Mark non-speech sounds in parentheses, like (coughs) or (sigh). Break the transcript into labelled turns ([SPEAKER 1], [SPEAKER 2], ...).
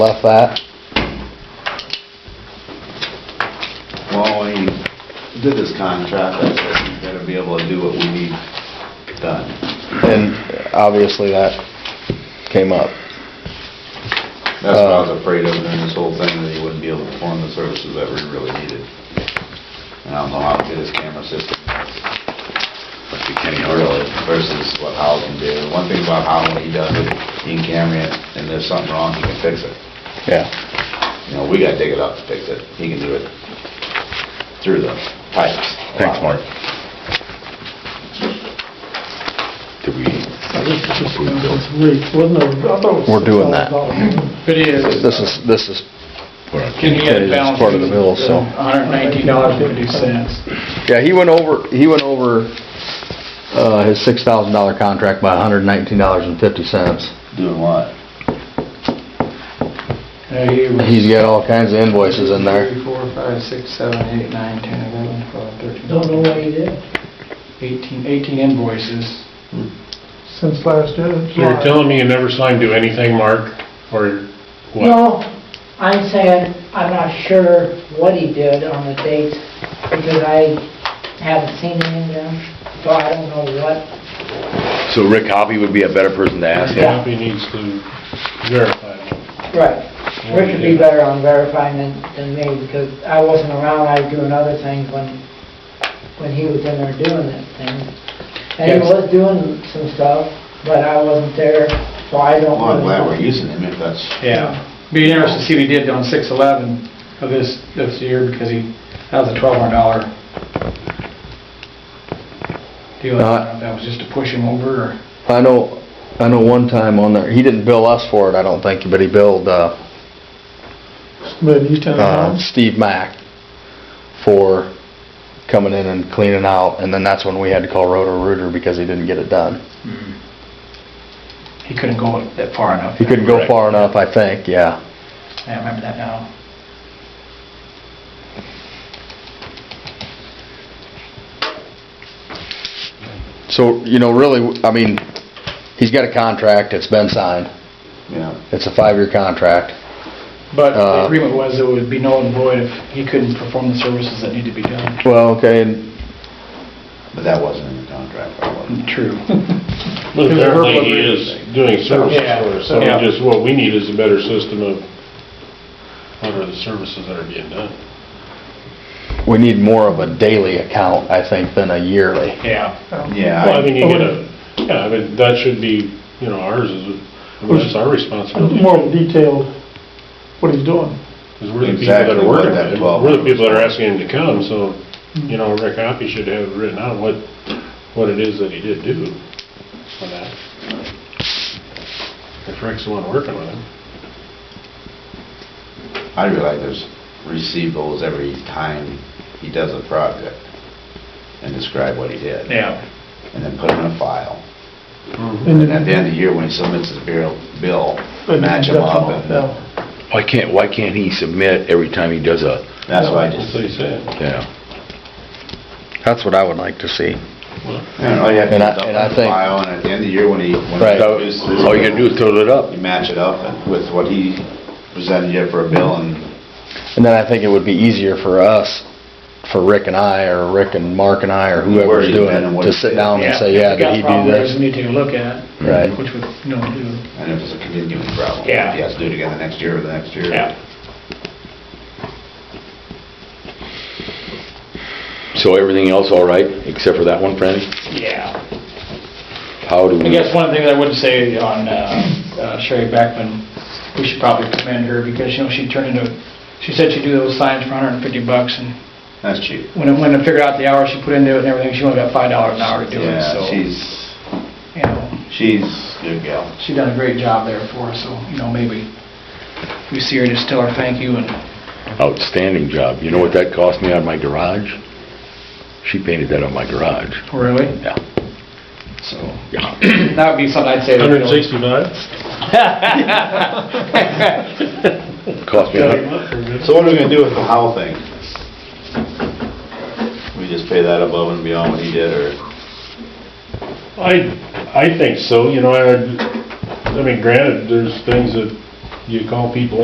[SPEAKER 1] left that.
[SPEAKER 2] Well, when he did this contract, I said, you gotta be able to do what we need done.
[SPEAKER 1] And obviously that came up.
[SPEAKER 2] That's what
[SPEAKER 1] uh,
[SPEAKER 2] I was afraid of during this whole thing, that he wouldn't be able to perform the services that we really needed. And I don't know how good his camera system is. Must be Kenny Early versus what Howell can do. One thing about Howell, when he does it, he can camera it, and there's something wrong, he can fix it.
[SPEAKER 1] Yeah,
[SPEAKER 2] You know, we gotta dig it up to fix it. He can do it through the pipes. a
[SPEAKER 1] Thanks, Mark.
[SPEAKER 2] lot more.
[SPEAKER 3] Did we
[SPEAKER 4] This is just,
[SPEAKER 3] approve
[SPEAKER 4] it's
[SPEAKER 3] those?
[SPEAKER 4] rate, wasn't it? I thought it was
[SPEAKER 1] We're doing that.
[SPEAKER 4] $6,000.
[SPEAKER 5] It is.
[SPEAKER 1] this is, this is,
[SPEAKER 3] We're on-
[SPEAKER 5] uh, Can you get a
[SPEAKER 1] It's
[SPEAKER 5] balance?
[SPEAKER 1] part of the bill, so.
[SPEAKER 5] $119.50.
[SPEAKER 1] yeah, he went over, he went over, uh, his six thousand dollar contract by hundred and nineteen dollars and fifty cents.
[SPEAKER 2] Doing what?
[SPEAKER 5] Yeah, he was-
[SPEAKER 1] He's got all kinds of invoices in there.
[SPEAKER 5] Three, four, five, six, seven, eight, nine, 10, 11, 12, 13.
[SPEAKER 4] Don't know what he did
[SPEAKER 5] 18 18 invoices.
[SPEAKER 4] since last year.
[SPEAKER 6] So you're telling me you never saw him do anything, Mark, or what?
[SPEAKER 7] No, I'm saying, I'm not sure what he did on the dates, because I haven't seen him in them, so I don't know what.
[SPEAKER 3] So Rick Hoppy would be a better person to ask him?
[SPEAKER 6] Happy needs to verify. that.
[SPEAKER 7] Right. Rick would be better on verifying than, than me, because I wasn't around, I was doing other things when, when he was in there doing that thing. And he
[SPEAKER 5] Yes.
[SPEAKER 7] was doing some stuff, but I wasn't there, so I don't.
[SPEAKER 2] Well, I'm glad
[SPEAKER 7] know.
[SPEAKER 2] we're using him if that's.
[SPEAKER 5] Yeah. Be interesting to see what he did on 6/11 of this, this year, because he, that was a $1,200 deal. I don't know if that was just to push him over, or...
[SPEAKER 1] I know, I know one time on there, he didn't bill us for it, I don't think, but he billed, uh,
[SPEAKER 4] But you tell
[SPEAKER 1] uh,
[SPEAKER 4] him,
[SPEAKER 1] Steve Mack for coming in and cleaning out, and then that's when we had to call Roto Rooter because he didn't get it done.
[SPEAKER 5] He couldn't go that far enough.
[SPEAKER 1] He couldn't go far enough, I think, yeah.
[SPEAKER 5] I remember that now.
[SPEAKER 1] So, you know, really, I mean, he's got a contract, it's been signed,
[SPEAKER 2] Yeah.
[SPEAKER 1] it's a five-year contract.
[SPEAKER 5] But
[SPEAKER 1] Uh,
[SPEAKER 5] the agreement was it would be null and void if he couldn't perform the services that need to be done. (laughs)
[SPEAKER 1] Well, okay, and
[SPEAKER 2] But that wasn't in the contract, that wasn't.
[SPEAKER 5] True.
[SPEAKER 6] But apparently he is doing services
[SPEAKER 5] Yeah.
[SPEAKER 6] for us, so
[SPEAKER 5] Yeah.
[SPEAKER 6] just what we need is a better system of, what are the services that are being done?
[SPEAKER 1] we need more of a daily account, I think, than a yearly.
[SPEAKER 6] Yeah.
[SPEAKER 2] Yeah.
[SPEAKER 6] Well, I mean, you get a, yeah, I mean, that should be, you know, ours is, I mean, that's our responsibility.
[SPEAKER 4] more detailed what he's doing.
[SPEAKER 6] Because we're the people that
[SPEAKER 2] Exactly
[SPEAKER 6] are
[SPEAKER 2] what
[SPEAKER 6] working,
[SPEAKER 2] that
[SPEAKER 6] with him.
[SPEAKER 2] 12
[SPEAKER 6] we're the people that are asking him to come, so, you know, Rick Hoppy should have written out what, what it is that he did do for that. If Rick's the one working with him.
[SPEAKER 2] I realize there's receivables every time he does a project and describe what he did.
[SPEAKER 5] Yeah.
[SPEAKER 2] And then put it in a file.
[SPEAKER 4] And
[SPEAKER 2] And at the end of the year, when he submits his bill, bill, match him up and
[SPEAKER 3] Why can't, why can't he submit every time he does a,
[SPEAKER 2] that's why I
[SPEAKER 6] That's
[SPEAKER 2] just,
[SPEAKER 6] what he said.
[SPEAKER 3] yeah?
[SPEAKER 1] That's what I would like to see.
[SPEAKER 2] you know, you have to
[SPEAKER 1] And I-
[SPEAKER 2] put
[SPEAKER 1] and
[SPEAKER 2] it
[SPEAKER 1] I
[SPEAKER 2] up in a
[SPEAKER 1] think-
[SPEAKER 2] file and at the end of the year, when he, when he
[SPEAKER 1] Right.
[SPEAKER 3] So,
[SPEAKER 2] produces his
[SPEAKER 3] All you gotta do
[SPEAKER 2] bill,
[SPEAKER 3] is total it up.
[SPEAKER 2] You match it up with what he presented you for a bill and
[SPEAKER 1] And then I think it would be easier for us, for Rick and I, or Rick and Mark and I, or
[SPEAKER 2] Where
[SPEAKER 1] whoever's
[SPEAKER 2] he's
[SPEAKER 1] doing
[SPEAKER 2] been and
[SPEAKER 1] it,
[SPEAKER 2] what
[SPEAKER 1] to
[SPEAKER 2] he's
[SPEAKER 1] sit
[SPEAKER 2] did.
[SPEAKER 1] down and say, Um, yeah,
[SPEAKER 5] If you
[SPEAKER 1] did
[SPEAKER 5] got
[SPEAKER 1] he do
[SPEAKER 5] problems, there's
[SPEAKER 1] this?
[SPEAKER 5] need to look at,
[SPEAKER 1] Right.
[SPEAKER 5] which would, no, do.
[SPEAKER 2] and if it's a continuing problem.
[SPEAKER 5] Yeah.
[SPEAKER 2] If he has to do it again the next year or the next year.
[SPEAKER 3] So everything else all right, except for that one, Franny?
[SPEAKER 5] Yeah.
[SPEAKER 3] How do we?
[SPEAKER 5] I guess one thing I would say on uh, uh, Sherry Beckman, we should probably commend her because, you know, she turned into, she said she'd do those signs for 150 bucks and
[SPEAKER 2] That's cheap.
[SPEAKER 5] when I, when I figured out the hours she put into it and everything, she only got $5 an hour to do it, so.
[SPEAKER 2] Yeah, she's, she's
[SPEAKER 5] You know,
[SPEAKER 2] a good gal.
[SPEAKER 5] she done a great job there for us, so, you know, maybe we see her, just tell her thank you and
[SPEAKER 3] Outstanding job. You know what that cost me on my garage? She painted that on my garage.
[SPEAKER 5] Really?
[SPEAKER 3] Yeah.
[SPEAKER 5] So, (clears throat) (coughs)
[SPEAKER 3] Yeah.
[SPEAKER 5] that would be something I'd say. to
[SPEAKER 6] Hundred
[SPEAKER 5] Bill.
[SPEAKER 6] and
[SPEAKER 5] (laughs)
[SPEAKER 6] sixty-five?
[SPEAKER 3] Cost me, a hun-
[SPEAKER 2] So what are we gonna do with the Howell thing? We just pay that above and beyond what he did, or?
[SPEAKER 6] I, I think so, you know, I, I mean, granted, there's things that you call people